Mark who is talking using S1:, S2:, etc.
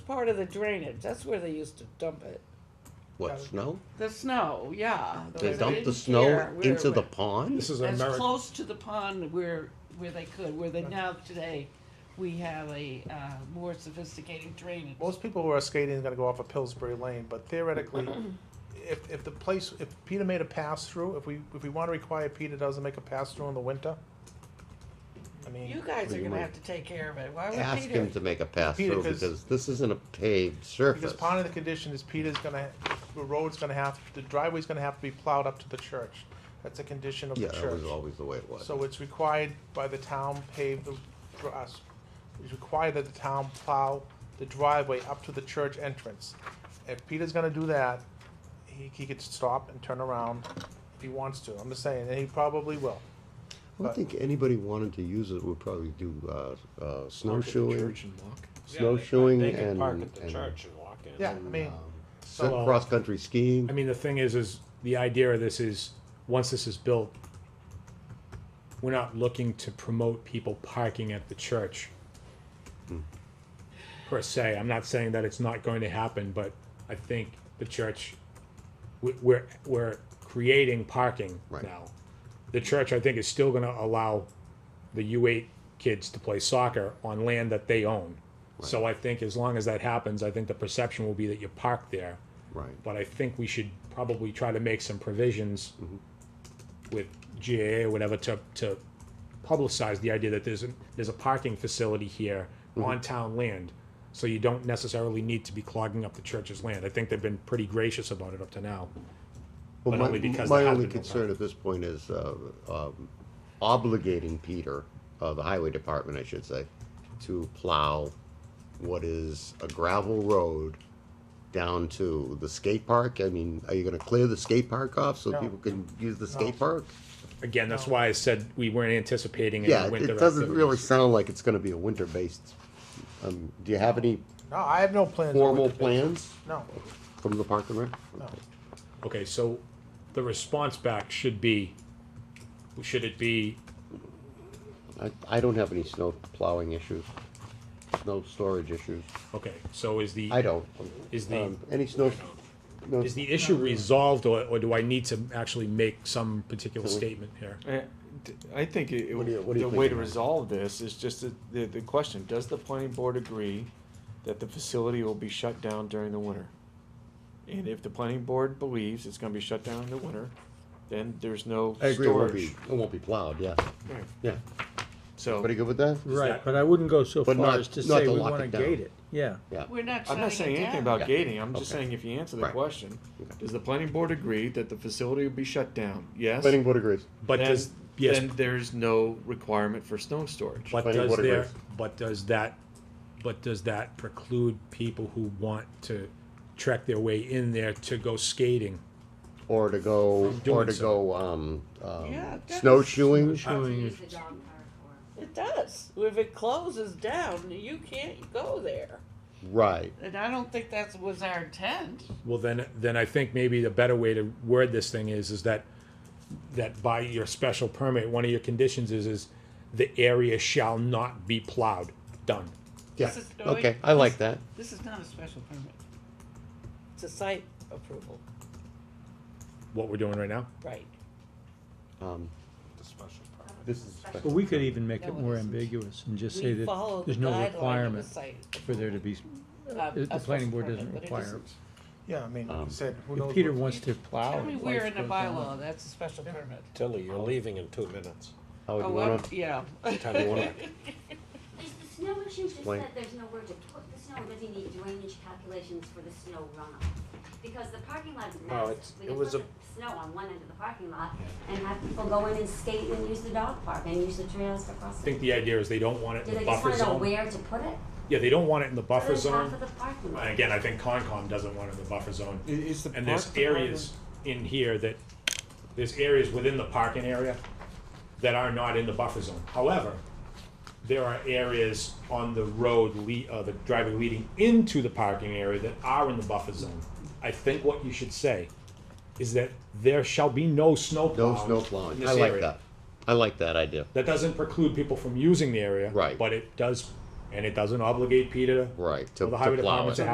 S1: part of the drainage. That's where they used to dump it. Uh,
S2: What, snow?
S1: The snow, yeah.
S2: They
S1: Right
S2: dump the
S1: in
S2: snow
S1: here, where-
S2: into the
S1: where-
S2: pond?
S3: This is
S1: As
S3: American,
S1: close to the pond where, where they could, where they now today, we have a, uh, more sophisticated drainage.
S4: Most people who are skating are going to go off of Pillsbury Lane, but theoretically, if, if the place, if Peter made a pass through, if we, if we want to require Peter doesn't make a pass through in the winter, I
S1: You
S4: mean,
S1: guys
S2: What do
S1: are
S2: you
S1: gonna
S2: mean?
S1: have to take care of it. Why would
S2: Ask him
S1: Peter?
S2: to make a pass
S4: Peter,
S2: through
S4: 'cause-
S2: because this isn't a paved surface.
S4: because part of the condition is Peter's going to, the road's going to have, the driveway's going to have to be plowed up to the church. That's a condition of the
S2: Yeah,
S4: church.
S2: that was always the way it was.
S4: So it's required by the town pave the, for us, it's required that the town plow the driveway up to the church entrance. If Peter's gonna do that, he, he could stop and turn around if he wants to, I'm just saying, and he probably will.
S2: I don't think anybody wanted to use it, would probably do, uh, uh, snowshoeing,
S3: church and walk.
S2: snowshoeing
S5: They
S2: and.
S5: can park at the
S2: and,
S5: church and walk in.
S4: Yeah, I
S2: um,
S4: mean,
S2: so- uh,
S3: Well-
S2: Cross-country skiing.
S3: I mean, the thing is, is the idea of this is, once this is built, we're not looking to promote people parking at the church. Per se, I'm not saying that it's not going to happen, but I think the church, we- we're, we're creating parking
S2: Right.
S3: now. The church, I think, is still gonna allow the U eight kids to play soccer on land that they own. So I think as long as that happens, I think the perception will be that you park there
S2: Right.
S3: but I think we should probably try to make some provisions
S2: Mm-hmm.
S3: with GAA or whatever to, to publicize the idea that there's, a- there's a parking facility here
S2: Mm-hmm.
S3: on town land. So you don't necessarily need to be clogging up the church's land. I think they've been pretty gracious about it up to now.
S2: Well,
S3: but
S2: my-
S3: only because
S2: My
S3: there has
S2: only
S3: been no
S2: concern at this point is uh, um, obligating Peter, uh, the highway department, I should say, to plow what is a gravel road down to the skate park. I mean, are you gonna clear the skate park off so
S4: No.
S2: people can use the skate
S4: No.
S2: park?
S3: Again, that's why I said we weren't anticipating
S2: Yeah,
S3: any
S2: it-
S3: winter
S2: it doesn't really
S3: activities.
S2: sound like it's gonna be a winter-based. um, Do you have any
S4: no, I have no plans. on
S2: formal
S4: what to do.
S2: plans
S4: No,
S2: from the park and rec?
S4: no,
S3: Okay, so the response back should be, should it be
S2: I, I don't have any snow plowing issues, snow storage issues.
S3: okay? So is the
S2: I don't.
S3: Is the-
S2: Um, Any snow, no,
S3: Is the issue resolved, or, or do I need to actually make some particular statement here?
S5: Eh, d- I think it, it
S2: What do you- what
S5: would-
S2: do you
S5: the way
S2: think,
S5: to
S2: Matt?
S5: resolve this is just the, the, the question, does the planning board agree that the facility will be shut down during the winter? And if the planning board believes it's gonna be shut down in the winter, then there's no
S2: I agree, it won't be,
S5: storage.
S2: it won't be plowed, yeah,
S5: Right.
S2: yeah.
S5: So,
S2: Pretty good with that?
S6: Right, but I wouldn't go so
S2: But
S6: far
S2: not-
S6: as to
S2: not
S6: say
S2: to
S6: we
S2: lock
S6: wanna
S2: it down.
S6: gate it, yeah.
S2: Yeah,
S1: We're not
S5: I'm not saying
S1: shutting
S5: anything
S1: it
S5: about
S1: down.
S5: gating, I'm just
S2: Okay.
S5: saying if you answer the
S2: Right.
S5: question,
S2: Okay.
S5: does the planning board agree that the facility will be shut down? Yes?
S2: planning board agrees.
S3: But
S5: Then-
S3: does, yes,
S5: Then there's no requirement for snow storage.
S3: but
S2: planning
S3: does
S2: board
S3: there,
S2: agrees.
S3: but does that, but does that preclude people who want to trek their way in there to go skating?
S2: Or to go, or
S3: doing
S2: to
S3: so.
S2: go, um,
S1: Yeah,
S2: um,
S1: it does.
S2: snowshoeing,
S3: Uh,
S7: use the dog park for.
S1: It does. If it closes down, you can't go there.
S2: right,
S1: And I don't think that was our intent.
S3: Well, then, then I think maybe the better way to word this thing is, is that, that by your special permit, one of your conditions is, is the area shall not be plowed, done.
S2: yeah,
S1: This is- no,
S2: okay,
S1: wait.
S2: I like that.
S1: This is not a special permit. It's a site approval,
S3: What we're doing right now?
S1: right?
S2: Um, This is special.
S6: But we could even make it
S1: No, it
S6: more
S1: isn't.
S6: ambiguous and just say
S1: We follow
S6: that
S1: the
S6: there's no
S1: guideline of
S6: requirement
S1: the site.
S6: for there to be,
S1: Uh,
S6: the
S1: a
S6: planning board
S1: special
S6: doesn't
S1: permit, but it
S6: require.
S1: isn't.
S4: yeah, I mean,
S2: Um,
S4: said, who knows?
S6: If Peter
S4: what-
S6: wants to plow.
S1: Tell me
S6: and
S1: where
S6: life
S1: in the
S6: goes on.
S1: bylaw that's a special permit.
S8: Tilly, you're leaving in two minutes.
S2: Howard,
S1: Oh,
S2: you
S1: well,
S2: wanna-
S1: yeah.
S8: How do you wanna-
S7: Is the snow issue just
S2: Explain.
S7: that there's nowhere to put the snow, or does he need drainage calculations for the snow runoff? Because the parking lot is
S3: Oh,
S7: massive,
S8: it's-
S7: we
S8: it
S7: can put
S8: was
S7: the snow on one end of the parking lot and have people go in and skate and use the dog park and use the trails to cross.
S3: I think the idea is they don't want it
S7: Do
S3: in
S7: they
S3: the
S7: just
S3: buffer
S7: wanna know
S3: zone.
S7: where to put it?
S3: Yeah, they don't want it in the buffer
S7: Put it
S3: zone.
S7: on top of the parking lot.
S3: And again, I think Concom doesn't want it in the buffer zone.
S5: I- is the
S3: And there's
S5: park department-
S3: areas in here that, there's areas within the parking area that are not in the buffer zone. However, there are areas on the road, le- uh, the driveway leading into the parking area that are in the buffer zone. I think what you should say is that there shall be no
S2: No
S3: snow plowing
S2: snow
S3: in
S2: plowing,
S3: this
S2: I like
S3: area.
S2: that, I like that idea.
S3: That doesn't preclude people from using the area.
S2: Right.
S3: But it does and it doesn't E obligate Peter
S2: Right, to
S3: Well,
S2: to
S3: the highway
S2: plow
S3: department's
S2: it.